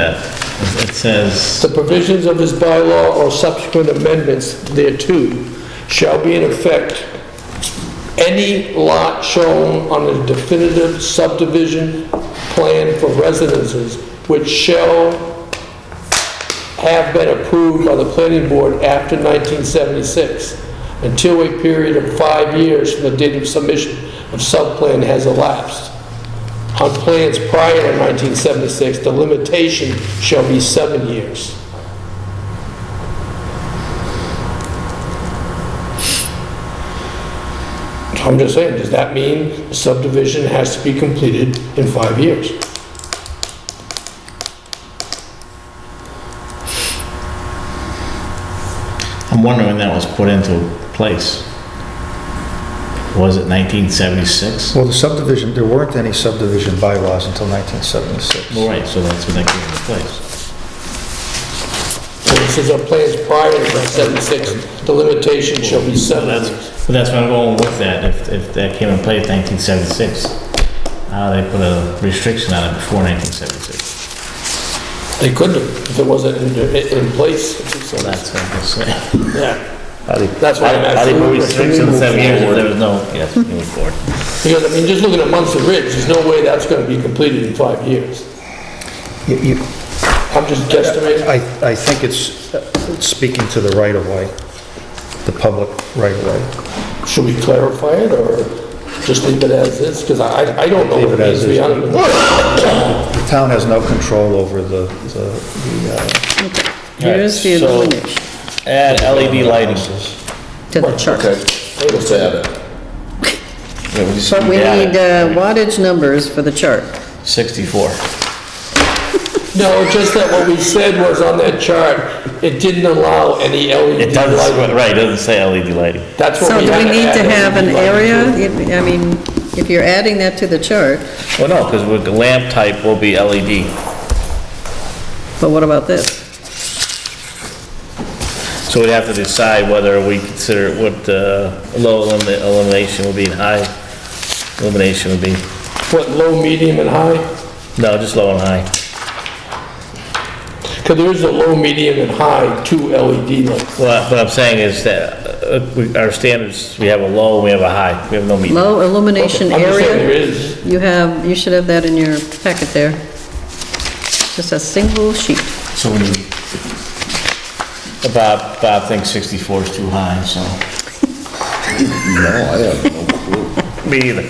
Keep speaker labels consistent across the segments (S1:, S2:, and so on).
S1: that. It says,
S2: The provisions of this bylaw or subsequent amendments thereto shall be in effect any lot shown on a definitive subdivision plan for residences which shall have been approved by the planning board after 1976 until a period of five years from the date of submission of subplan has elapsed. On plans prior to 1976, the limitation shall be seven years. So I'm just saying, does that mean the subdivision has to be completed in five years?
S1: I'm wondering when that was put into place. Was it 1976?
S3: Well, the subdivision, there weren't any subdivision bylaws until 1976.
S1: Well, right, so that's when that came into place.
S2: So This is a plans prior to 1976, the limitation shall be
S1: So
S2: seven
S1: that's,
S2: years.
S1: but that's where I'm going with that, if, if that came in place 1976. Uh, they put a restriction on it before 1976.
S2: They couldn't have if it wasn't in, in place. So
S1: Well, that's what I'm saying.
S2: Yeah,
S4: How they-
S2: that's why I'm
S4: how they
S2: asking.
S4: put
S2: you.
S4: restrictions
S1: Seven years,
S4: forward.
S1: there was no, yes, moving forward.
S2: Because, I mean, just looking at Munson Ridge, there's no way that's gonna be completed in five years.
S3: You- you-
S2: I'm just guesstimating.
S3: I, I think it's uh, speaking to the right-of-way, the public right-of-way.
S2: Should we clarify it, or just leave it as is? Because I, I don't know what it
S3: Leave it
S2: means, to be
S3: as
S2: honest with you.
S3: The town has no control over the, the, the, uh,
S5: Here's the
S4: so-
S5: language
S4: Add LED lighting.
S5: to the chart.
S4: Okay, let's add it. Yeah, we just
S5: But we
S4: add it.
S5: need uh, wattage numbers for the chart.
S4: 64.
S2: No, just that what we said was on that chart, it didn't allow any
S4: It
S2: LED
S4: doesn't,
S2: lighting.
S4: right, it doesn't say LED lighting.
S2: That's what
S5: So
S2: we
S5: do
S2: had
S5: we need to
S2: add
S5: have an
S2: LED lighting
S5: area?
S2: to.
S5: If- I mean, if you're adding that to the chart,
S4: Well, no, because with the lamp type will be E LED.
S5: but what about this?
S4: So we'd have to decide whether we consider what uh, low elimi- illumination would be and high illumination would be.
S2: What, low, medium, and high?
S4: No, just low and high.
S2: Because there is a low, medium, and high, two LED lights.
S4: Well, what I'm saying is that uh, we- our standards, we have a low, we have a high, we have no medium.
S5: Low illumination
S2: I'm just saying there
S5: area?
S2: is.
S5: You have, you should have that in your packet there. Just a single sheet.
S1: So when you, Bob, Bob thinks 64 is too high, so.
S4: Me either.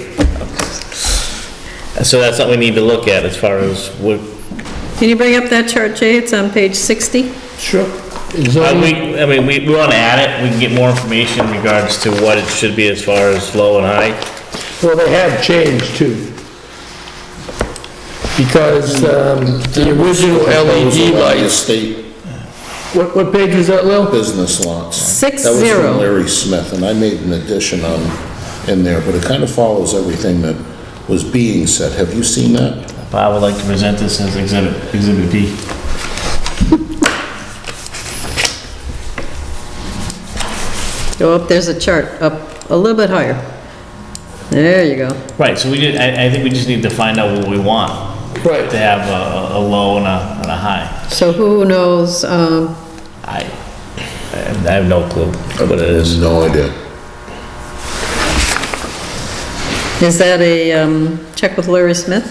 S4: So that's something we need to look at as far as what,
S5: Can you bring up that chart, Jay? It's on page 60.
S2: Sure.
S1: Uh,
S4: I mean, I mean, we, we wanna add it, we can get more information in regards to what it should be as far as low and high.
S2: Well, they have changed too. Because um, the original
S4: E
S2: LED lights,
S6: State
S2: what, what page is that, Lil?
S6: business lots.
S5: Six
S6: That was
S5: zero.
S6: from Larry Smith, and I made an addition on, in there, but it kind of follows everything that was being said. Have you seen that?
S1: Bob would like to present this as exhibit, exhibit B.
S5: Go up, Oh, there's a chart, up a little bit higher. There you go.
S1: Right, so we did, I, I think we just need to find out what we want.
S2: Right.
S1: To have a, a- a low and a, and a high.
S5: So who knows, um,
S1: I, I have no clue.
S4: What it is.
S6: No idea.
S5: is that a um, check with Larry Smith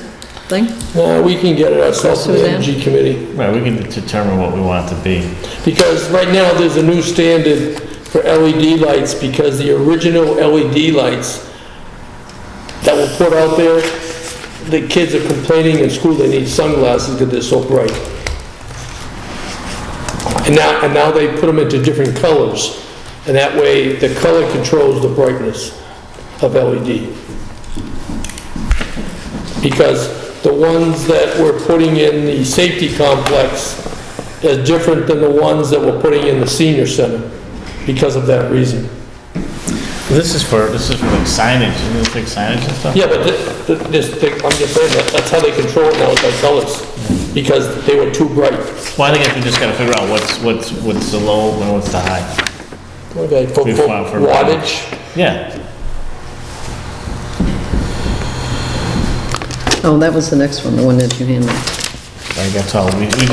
S5: thing?
S2: Uh, We can get it ourselves to the
S5: Suzanne?
S2: energy committee.
S1: Right, we can determine what we want it to be.
S2: Because right now, there's a new standard for LED lights because the original LED lights that were put out there, the kids are complaining in school they need sunglasses because they're so bright. And now, and now they put them into different colors, and that way the color controls the brightness of E LED. Because the ones that we're putting in the safety complex is different than the ones that we're putting in the senior center because of that reason.
S1: This is for, this is for like signage, isn't it like signage and stuff?
S2: Yeah, but thi- thi- this, thing- I'm just saying, that that's how they control it now with their colors, because they were too bright.
S1: Well, I think we just gotta figure out what's, what's, what's the low and what's the high.
S2: Okay, for
S1: We
S2: for
S1: filed for-
S2: wattage,
S1: Yeah,
S5: Oh, that was the next one, the one that you handed.
S1: I think that's all. We, we